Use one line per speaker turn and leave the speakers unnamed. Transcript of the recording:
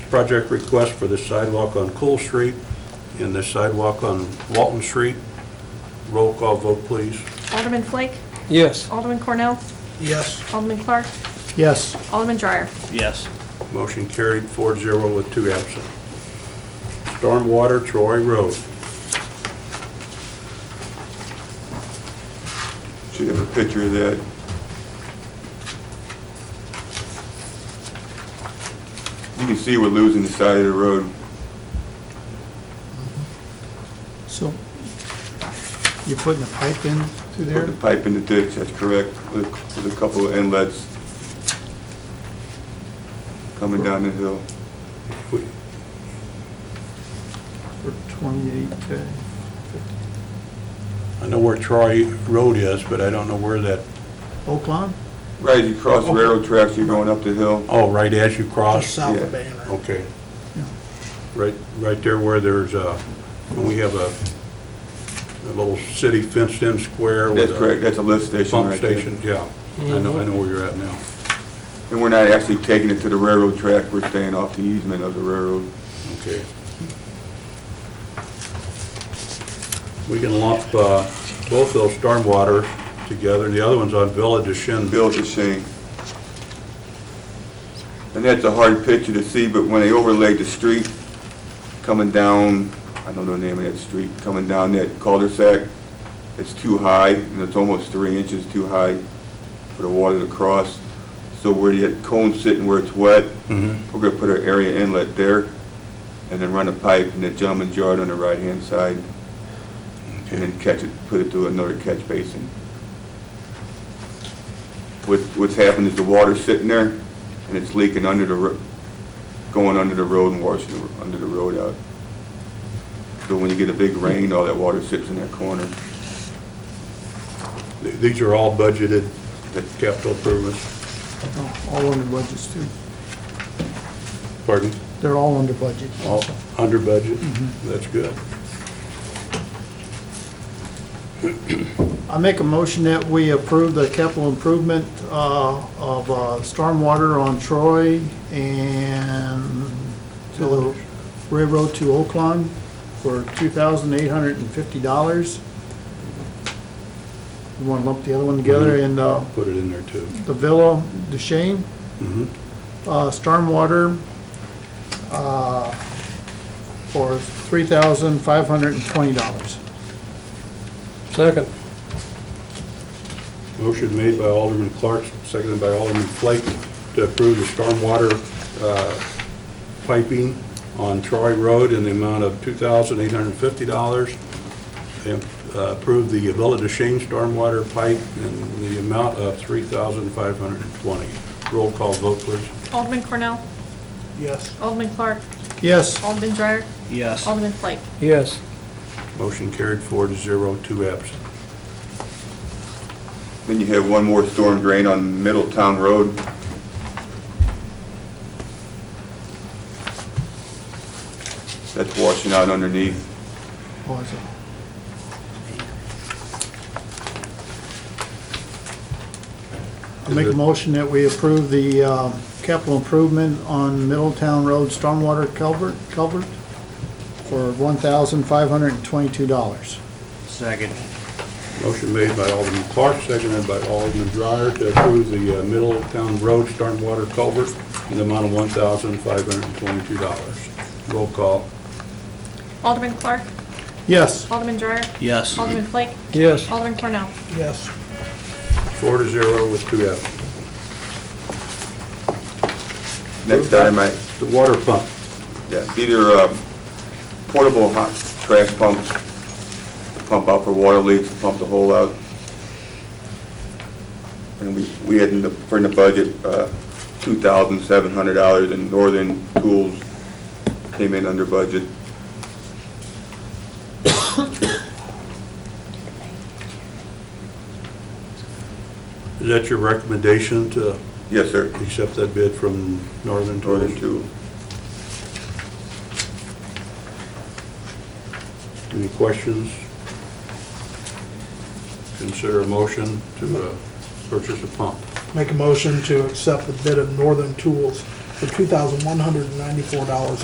project request for the sidewalk on Cool Street and the sidewalk on Walton Street. Roll call vote, please.
Alderman Flake?
Yes.
Alderman Cornell?
Yes.
Alderman Clark?
Yes.
Alderman Dreyer?
Yes.
Motion carried 4-0 with two absent. Stormwater Troy Road.
Should have a picture of that. You can see we're losing the side of the road.
So you're putting a pipe in through
Put
there?
the pipe in the ditch, that's correct, with with a couple of inlets coming down the hill.
We-
For twenty-eight, uh,
I know where Troy Road is, but I don't know where that,
Oak Lawn?
Right, you cross railroad tracks, you're going up the hill.
oh, right as you cross?
of
South
yeah.
Banner.
Okay.
Yeah.
Right, right there where there's a, we have a, a little city fenced-in square with
That's
a...
correct, that's a lift station
Pump
right there.
station, yeah. I know, I know where you're at now.
And we're not actually taking it to the railroad track, we're staying off the easement of the railroad.
Okay. We can lump uh, both those stormwater together, and the other one's on Village of Shin.
built the same. And that's a hard picture to see, but when they overlaid the street coming down, I don't know the name of that street, coming down that cul-de-sac, it's too high, and it's almost three inches too high for the water to cross. So where the cone's sitting where it's wet,
Mhm.
we're gonna put our area inlet there, and then run a pipe in the gentleman's yard on the right-hand side, and then catch it, put it through another catch basin. What, what's happened is the water's sitting there, and it's leaking under the, ro- going under the road and washing, the- under the road out. So when you get a big rain, all that water sits in that corner.
Th- These are all budgeted capital improvements.
No, Oh, All under budgets too.
Pardon?
They're all under budget.
All
also.
under budget? That's good.
I make a motion that we approve the capital improvement uh, of uh, stormwater on Troy and to the railroad to Oak Lawn for $2,850. You want to lump the other one together and uh,
Put it in there, too.
the Villa Duchesne,
Mhm.
uh, stormwater uh, for $3,520.
Second.
Motion made by Alderman Clark, seconded by Alderman Flake, to approve the stormwater uh, piping on Troy Road in the amount of $2,850. And uh, approve the Villa de Shane stormwater pipe in the amount of $3,520. Roll call vote, please.
Alderman Cornell?
Yes.
Alderman Clark?
Yes.
Alderman Dreyer?
Yes.
Alderman Flake?
Yes.
Motion carried four to zero, two absent.
Then you have one more storm drain on Middletown Road. That's washing out underneath.
Oh, is it? I make a motion that we approve the uh, capital improvement on Middletown Road stormwater culvert, culvert for one thousand five hundred and twenty-two dollars.
Second.
Motion made by Alderman Clark, seconded by Alderman Dreyer to approve the uh, Middletown Road stormwater culvert in the amount of $1,522. Roll call.
Alderman Clark?
Yes.
Alderman Dreyer?
Yes.
Alderman Flake?
Yes.
Alderman Cornell?
Yes.
Four to zero with two absent.
Next item, I,
The water pump.
Yeah, either um, portable hot trash pumps, pump out for water leaks, pump the hole out. And we, we had in the, for in the budget, uh, $2,700 and Northern Tools came in under budget.
Is that your recommendation to
Yes, sir,
accept that bid from Northern Tools?
Northern Tools.
Any questions? Consider a motion to uh, purchase a pump.
Make a motion to accept the bid of Northern Tools for $2,194